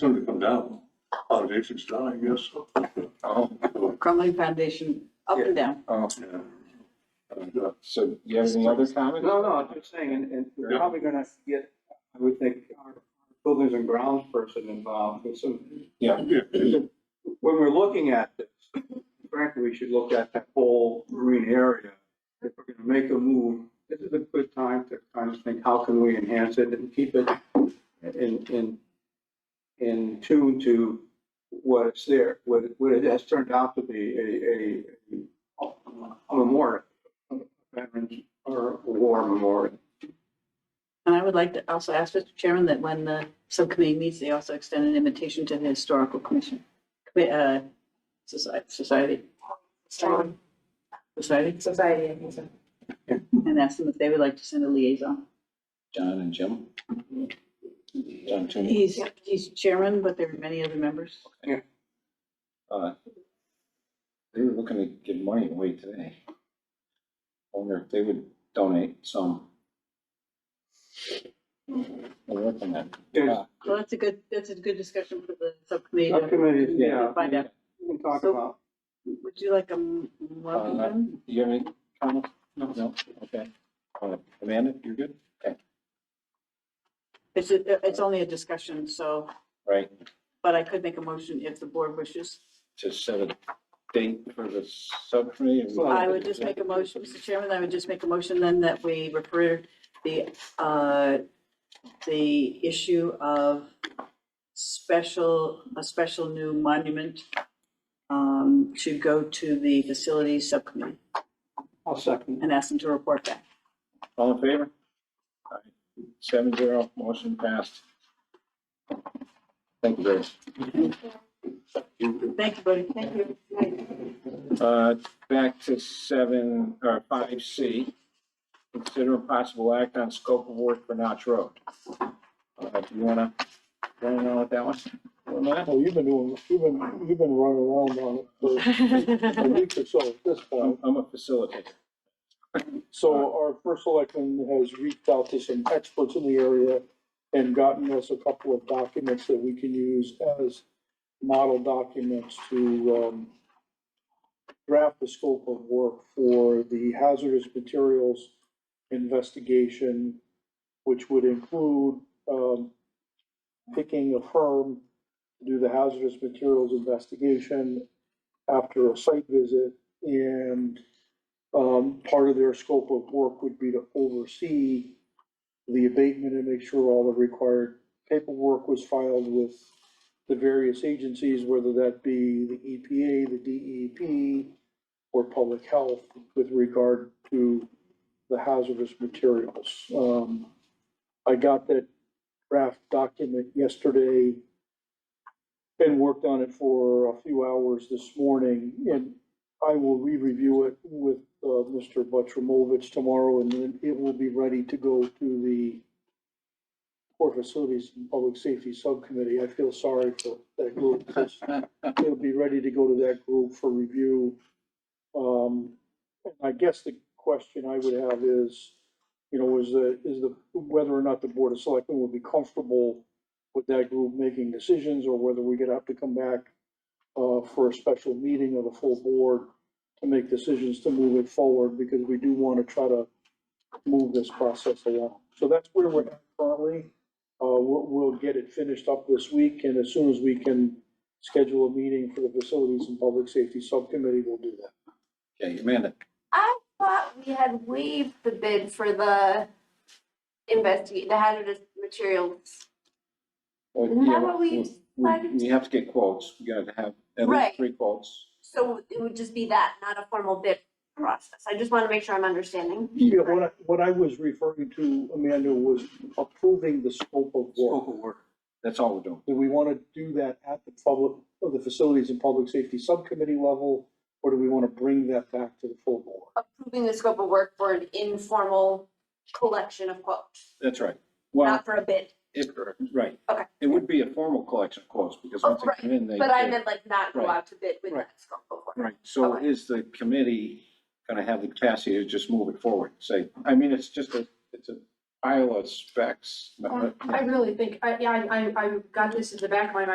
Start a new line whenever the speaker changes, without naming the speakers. Soon to come down. Foundation's down, I guess. so.
Oh,
crumbling foundation, up and down.
oh,
Yeah. And, uh,
so do you have any other comments?
No, no, I'm just saying, and, and we're probably gonna get, I would think, our buildings and grounds person involved with some.
Yeah.
When we're looking at this, frankly, we should look at that whole marine area. If we're gonna make a move, this is a good time to kind of think, how can we enhance it and keep it in, in, in tune to what it's there, what, it- what it has turned out to be, a, a, a memorial. a Veterans or a war memorial.
And I would like to also ask, Mr. Chairman, that when the subcommittee meets, they also extend an invitation to the Historical Commission, commi- uh, Soci- Society,
Society,
Society,
society, I think so.
and ask them if they would like to send a liaison.
John and Jim? John Toomey?
He's, he's chairman, but there are many other members.
Uh, They were looking to give money away today. I Wonder if they would donate some. We're looking at.
There's
So that's a good, that's a good discussion for the subcommittee to
subcommittees, yeah,
find out.
we can talk
So-
about.
Would you like a m- welcome?
Uh,
then?
Do you have any comments? No. No, okay. Uh, Amanda, you're good?
It's, a- it's only a discussion, so,
Right,
but I could make a motion if the board wishes.
to set a date for the subcommittee? and-
I would just make a motion, Mr. Chairman, I would just make a motion then that we refer the, uh, the issue of special, a special new monument um, should go to the facilities subcommittee
I'll second.
and ask them to report back.
All in favor? All right. Seven zero, motion passed. Thank you, guys.
Thank you, buddy. Thank you.
Uh, back to seven, or five C. Consider a possible act on scope of work for Notch Road. Uh, do you wanna, wanna know what that was? Oh, Or not?
Well, you've been doing, you've been, you've been running around on it for a week or so at this
I'm
point.
I'm a facilitator.
So our first selectman has reached out to some experts in the area and gotten us a couple of documents that we can use as model documents to, um, draft the scope of work for the hazardous materials investigation, which would include, um, picking a firm to do the hazardous materials investigation after a site visit and um, part of their scope of work would be to oversee the abatement and make sure all the required paperwork was filed with the various agencies, whether that be the EPA, the DEP, or public health with regard to the hazardous materials. Um, I got that draft document yesterday and worked on it for a few hours this morning. And I will re-review it with uh, Mr. Butrimovich tomorrow, and then it will be ready to go to the Port Facilities and Public Safety Subcommittee. I feel sorry for that group. It'll be ready to go to that group for review. Um, and I guess the question I would have is, you know, is the, is the, whether or not the Board of Selectmen would be comfortable with that group making decisions, or whether we're gonna have to come back uh, for a special meeting of the full board to make decisions to move it forward, because we do want to try to move this process along. So that's where we're at currently. Uh, we'll, we'll get it finished up this week, and as soon as we can schedule a meeting for the Facilities and Public Safety Subcommittee, we'll do that.
Okay, Amanda,
I thought we had waived the bid for the investigate, the hazardous materials.
well,
Isn't that
yeah,
what we decided?
We have to get quotes, we gotta have at least
Right.
three quotes.
So it would just be that, not a formal bid process. I just want to make sure I'm understanding.
Yeah, what I, what I was referring to, Amanda, was approving the scope of work.
Scope of work.
That's all we're doing.
Do we want to do that at the public, of the Facilities and Public Safety Subcommittee level, or do we want to bring that back to the full board?
Approving the scope of work for an informal collection of quotes,
That's right. Well,
not for a bid.
It, right.
Okay.
It would be a formal collection of quotes, because
Oh,
once they come in, they.
But I meant like not go
Right.
out to bid with
Right.
that scope of work.
Right, so
Okay.
is the committee gonna have the capacity to just move it forward, say, I mean, it's just a, it's a pile of specs. but-
Um, I really think, I, yeah, I, I, I got this in the back of my mind